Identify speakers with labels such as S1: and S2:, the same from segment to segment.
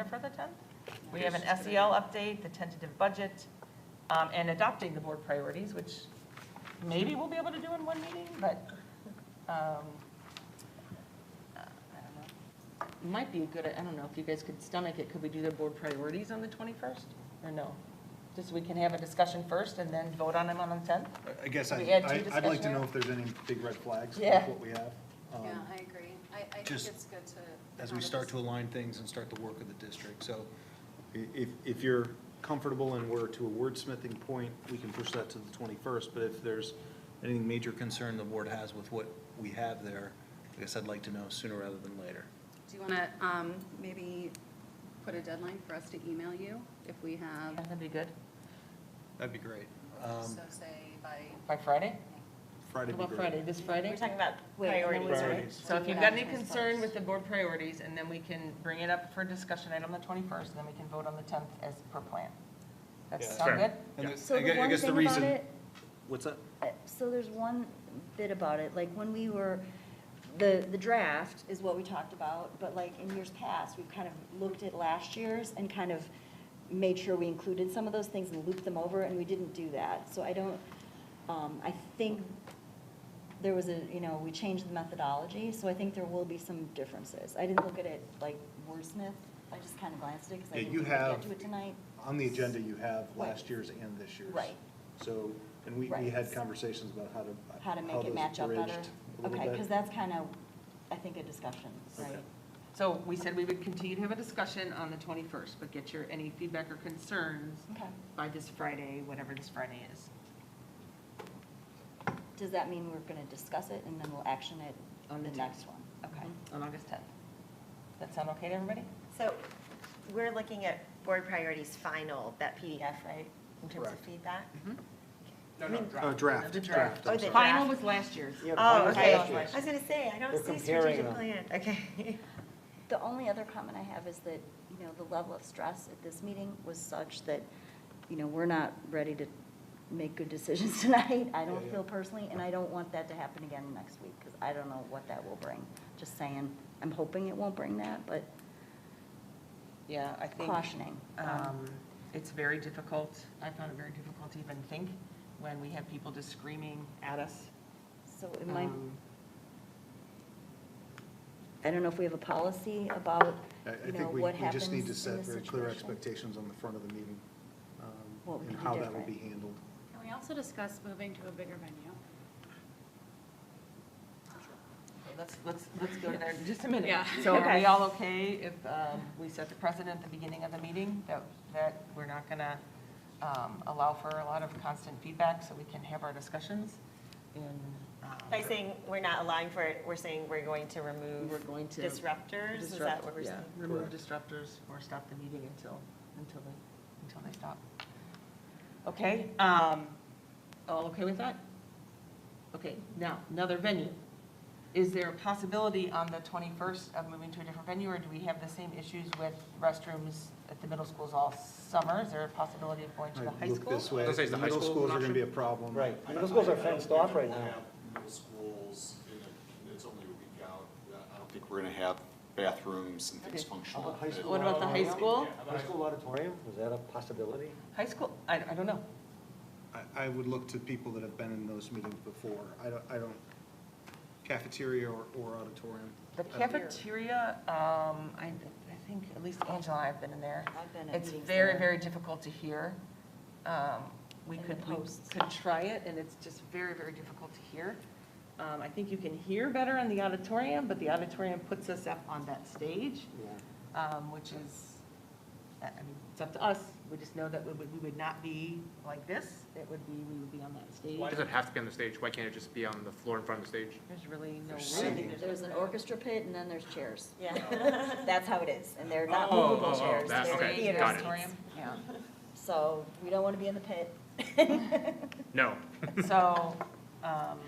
S1: agenda for the 10th. We have an SEL update, the tentative budget, um, and adopting the board priorities, which maybe we'll be able to do in one meeting, but um, uh, I don't know. might be a good, I don't know if you guys could stomach it, could we do the board priorities on the 21st, or no? Just so we can have a discussion first and then vote on them on the 10th?
S2: I guess I-
S1: We add two
S2: I, I'd like to
S1: discussion
S2: know if there's any big red flags
S1: Yeah.
S2: with what we have. um,
S3: Yeah, I agree. I, I think
S4: Just
S3: it's good to.
S4: as we start to align things and start the work of the district. So i- if, if you're comfortable and we're to a wordsmithing point, we can push that to the 21st. But if there's any major concern the board has with what we have there, I guess I'd like to know sooner rather than later.
S3: Do you want to, um, maybe put a deadline for us to email you if we have,
S1: That'd be good,
S4: That'd be great. Um,
S3: so say by,
S1: by Friday?
S2: Friday
S1: How
S2: would
S1: about
S2: be
S1: Friday,
S2: great.
S1: this Friday?
S5: We're talking about
S6: Wait, and then
S5: priorities,
S6: we-
S5: right?
S2: Priorities.
S1: So if you've got any concern with the board priorities, and then we can bring it up for discussion item the 21st, and then we can vote on the 10th as per plan. That
S4: Yeah.
S1: sound good?
S4: and the-
S6: So
S4: I gue-
S6: the
S4: I
S6: one
S4: guess the
S6: thing about
S4: reason-
S6: it,
S4: What's that?
S6: uh, so there's one bit about it, like when we were, the, the draft is what we talked about, but like in years past, we've kind of looked at last year's and kind of made sure we included some of those things and looped them over, and we didn't do that. So I don't, um, I think there was a, you know, we changed the methodology, so I think there will be some differences. I didn't look at it like wordsmith, I just kind of glanced at it, because I
S2: Yeah,
S6: didn't
S2: you
S6: think we'd
S2: have-
S6: get to it tonight.
S2: On the agenda, you have
S6: Right.
S2: last year's and this year's.
S6: Right.
S2: So, and we, we
S6: Right.
S2: had conversations about how to.
S6: how to make it
S2: those
S6: match up better?
S2: bridged a little
S6: Okay,
S2: bit.
S6: because that's kind of, I think, a discussion, right?
S1: So we said we would continue to have a discussion on the 21st, but get your, any feedback or concerns
S6: Okay.
S1: by this Friday, whatever this Friday is.
S6: Does that mean we're going to discuss it and then we'll action it
S1: On
S6: on
S1: the
S6: the
S1: tenth.
S6: next one?
S1: Okay,
S6: Okay.
S1: on August 10th. That sound okay to everybody?
S5: So we're looking at board priorities final, that PDF, right? In terms of
S2: Correct.
S5: feedback?
S4: Uh, Draft.
S1: The draft.
S5: Oh, the
S1: Final
S5: draft.
S1: was last year's.
S5: Oh, okay.
S1: last year's.
S5: I was going to say, I don't
S7: We're
S5: see
S7: comparing
S5: strategic
S7: them.
S5: plan. Okay.
S6: The only other comment I have is that, you know, the level of stress at this meeting was such that, you know, we're not ready to make good decisions tonight. I don't feel personally, and I don't want that to happen again next week because I don't know what that will bring. Just saying, I'm hoping it won't bring that, but
S1: Yeah, I think.
S6: cautioning. Um,
S1: Um, It's very difficult, I found it very difficult to even think when we have people just screaming at us.
S6: So it might,
S1: Um,
S6: I don't know if we have a policy about,
S2: I, I
S6: you know,
S2: think we,
S6: what
S2: we
S6: happens
S2: just
S6: in
S2: need to
S6: this
S2: set very clear
S6: situation.
S2: expectations on the front of the meeting. um,
S6: What we
S2: And
S6: do
S2: how that will
S6: different.
S2: be handled.
S8: Can we also discuss moving to a bigger venue?
S1: Let's, let's, let's go there in just a minute.
S8: Yeah.
S1: So are we all okay if um, we set the precedent at the beginning of the meeting that, that we're not going to allow for a lot of constant feedback so we can have our discussions? And um,
S5: By saying we're not allowing for it, we're saying we're going to remove
S1: we're going to.
S5: disruptors? Is that
S1: disrupt-
S5: what we're
S1: yeah,
S5: saying?
S1: Remove disruptors or stop the meeting until, until they, until they stop. Okay, um, all okay with that? Okay, now, another venue. Is there a possibility on the 21st of moving to a different venue, or do we have the same issues with restrooms at the middle schools all summer? Is there a possibility of going to the
S2: I
S1: high
S2: look
S1: school?
S2: this way,
S9: Let's say it's
S2: the
S9: the high
S2: middle
S9: school
S2: schools are
S9: an
S2: going to be a problem.
S7: Right, middle schools are fenced off right now.
S10: Middle schools, in a- it's only a week out, I don't think we're gonna have bathrooms and things functional.
S7: High school
S1: What about the high
S7: auditorium?
S1: school?
S7: High school auditorium, is that a possibility?
S1: High school, I, I don't know.
S2: I, I would look to people that have been in those meetings before. I don't, I don't, cafeteria or, or auditorium.
S1: The cafeteria, um, I, I think, at least Angela, and I have been in there.
S6: I've been at
S1: It's
S6: meetings
S1: very,
S6: there.
S1: very difficult to hear. Um, We
S6: And
S1: could,
S6: the
S1: we
S6: posts.
S1: could try it, and it's just very, very difficult to hear. Um, I think you can hear better in the auditorium, but the auditorium puts us up on that stage, um, which is, I I mean, it's up to us. We just know that we would, we would not be like this. It would be, we would be on that stage.
S9: Why does it have to be on the stage? Why can't it just be on the floor in front of the stage?
S1: There's really no room.
S2: singing.
S6: There's an orchestra pit and then there's chairs.
S5: Yeah.
S6: That's how it is, and they're not
S9: Oh, oh,
S6: movable
S9: oh,
S6: chairs.
S9: that-
S6: They're
S9: okay,
S6: theater
S9: got it.
S6: seats.
S1: Yeah.
S6: So we don't want to be in the pit.
S9: No,
S1: So, um,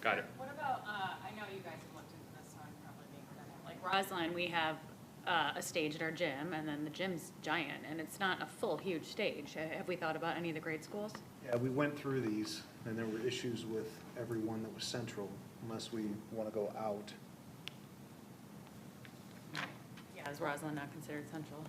S9: got it.
S8: What about, uh, I know you guys have looked into this, so I'm probably being redundant. Like Roseline, we have uh, a stage at our gym, and then the gym's giant, and it's not a full, huge stage. Uh, Have we thought about any of the grade schools?
S2: Yeah, we went through these, and there were issues with every one that was central, unless we want to go out.
S8: Yeah, Yeah, is Roslyn not considered central?